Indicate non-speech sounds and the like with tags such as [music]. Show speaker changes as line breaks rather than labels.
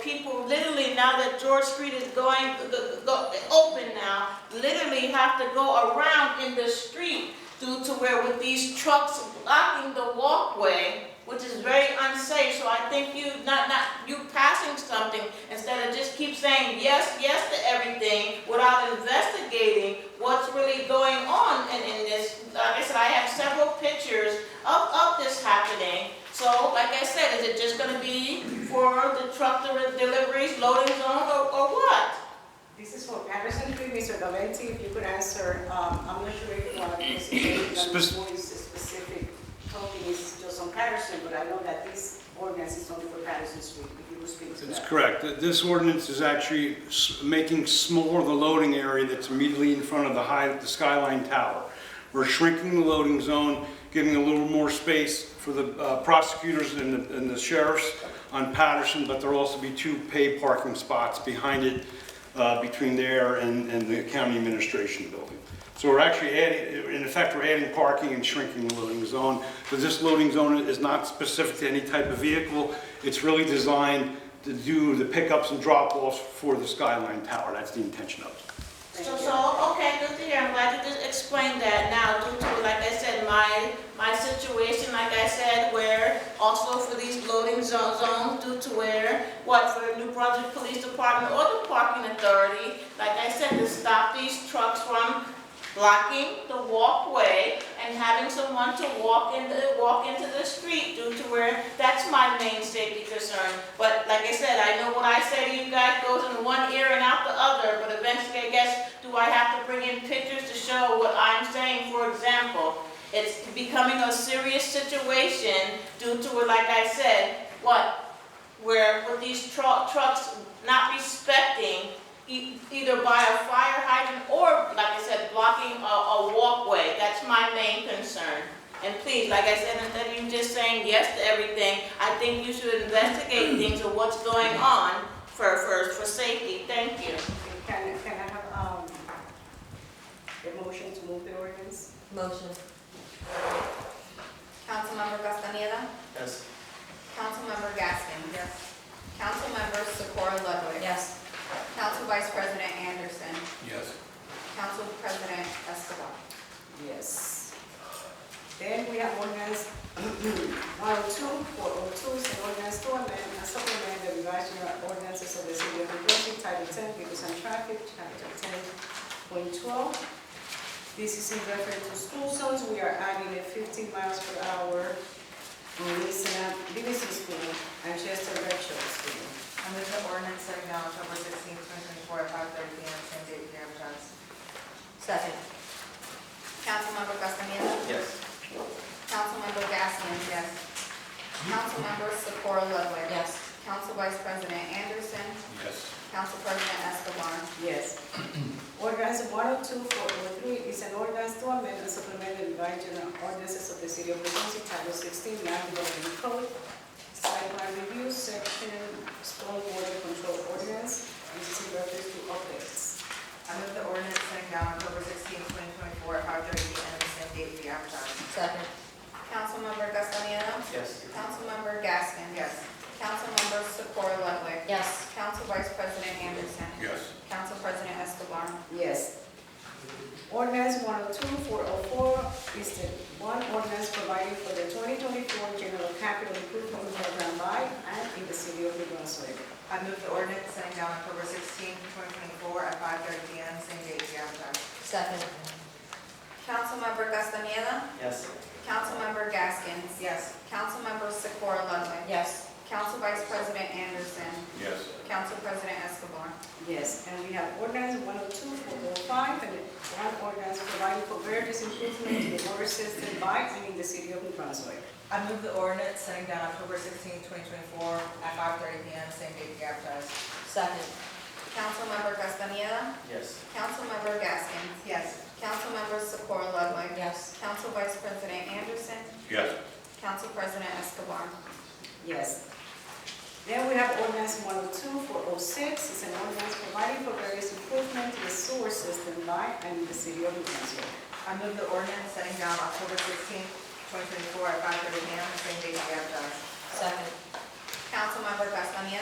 people literally now that George Street is going, the, the, open now, literally have to go around in the street due to where with these trucks blocking the walkway, which is very unsafe, so I think you, not, not, you passing something instead of just keep saying yes, yes to everything without investigating what's really going on in, in this. Like I said, I have several pictures of, of this happening. So, like I said, is it just gonna be for the truck deli- deliveries, loading zone, or, or what?
This is for Patterson Creek, Mr. Valenti, if you could answer, um, I'm not sure if one of
[coughs]
those is
Spec-
what is the specific topic is just on Patterson, but I know that this ordinance is only for Patterson Street, if you could speak to
That's
that.
correct. Th- This ordinance is actually s- making smaller the loading area that's immediately in front of the high, the Skyline Tower. We're shrinking the loading zone, giving a little more space for the uh, prosecutors and the- and the sheriffs on Patterson, but there'll also be two paid parking spots behind it, uh, between there and and the county administration building. So we're actually adding, in effect, we're adding parking and shrinking the loading zone. But this loading zone is not specific to any type of vehicle. It's really designed to do the pickups and drop-offs for the Skyline Tower. That's the intention of it.
So,
Thank you.
so, okay, good to hear, I'm glad you just explained that now, due to, like I said, my, my situation, like I said, where also for these loading zo- zones, due to where, what, for the New Brunswick Police Department or the Parking Authority, like I said, to stop these trucks from blocking the walkway and having someone to walk in the, walk into the street due to where, that's my main safety concern. But like I said, I know what I say to you guys goes in one ear and out the other, but eventually, I guess, do I have to bring in pictures to show what I'm saying, for example? It's becoming a serious situation due to, like I said, what, where with these tru- trucks not respecting e- either by a fire hydrant or, like I said, blocking a, a walkway. That's my main concern. And please, like I said, instead of you just saying yes to everything, I think you should investigate things of what's going on for, first for safety. Thank you.
Can, can I have, um, a motion to move the ordinance?
Motion.
Councilmember Castaneda?
Yes.
Councilmember Gaskin? Yes. Councilmember Socorro Ludwig?
Yes.
Council Vice President Anderson?
Yes.
Council President Escobar?
Yes. Then we have [clears throat] oh ordinance 102, 402, is an ordinance to amend and supplement the revised general ordinances of the city of New Brunswick, Title 10, Vehicles and Traffic, Chapter 10.12. This is in reference to school zones, we are adding a 15 miles per hour on Livingston Livingston School and Chester Redshaw School.
I move the ordinance setting down October sixteenth, twenty twenty-four, at five thirty P M, same date, here in Johnson. Second.
Councilmember Castaneda?
Yes.
Councilmember Gaskin? Yes. Councilmember Socorro Ludwig?
Yes.
Council Vice President Anderson?
Yes.
Council President Escobar?
Yes. [clears throat] Ordinance 102403 is an ordinance to amend and supplement the revised general ordinances of the City of Lucy, Title 16, Land Development Code, Site Plan Review, Section Stormwater Control Ordinance, and this is in reference to updates.
I move the ordinance setting down October sixteenth, twenty twenty-four, at five thirty P M, same date, here in Johnson. Second.
Councilmember Castaneda?
Yes.
Councilmember Gaskin?
Yes.
Councilmember Socorro Ludwig?
Yes.
Council Vice President Anderson?
Yes.
Council President Escobar?
Yes. Ordinance 102404 is the one ordinance providing for the 2024 General Capital Improvement Program by and in the City of New Brunswick.
I move the ordinance setting down October sixteenth, twenty twenty-four, at five thirty P M, same date, here in Johnson. Second.
Councilmember Castaneda?
Yes.
Councilmember Gaskins?
Yes.
Councilmember Secora Ludwig?
Yes.
Council Vice President Anderson?
Yes.
Council President Escobar?
Yes, and we have ordinance 102, 405, and one ordinance providing for various improvements in the water system by and in the city of New Brunswick.
I move the ordinance setting down October sixteenth, twenty twenty-four, at five thirty P M, same date, here in Johnson. Second.
Councilmember Castaneda?
Yes.
Councilmember Gaskins?
Yes.
Councilmember Secora Ludwig?
Yes.
Council Vice President Anderson?
Yes.
Council President Escobar?
Yes. Then we have ordinance 102, 406, it's an ordinance providing for various improvements in the sewer system by and in the city of New Brunswick.
I move the ordinance setting down October sixteenth, twenty twenty-four, at five thirty P M, same date, here in Johnson. Second.
Councilmember Castaneda?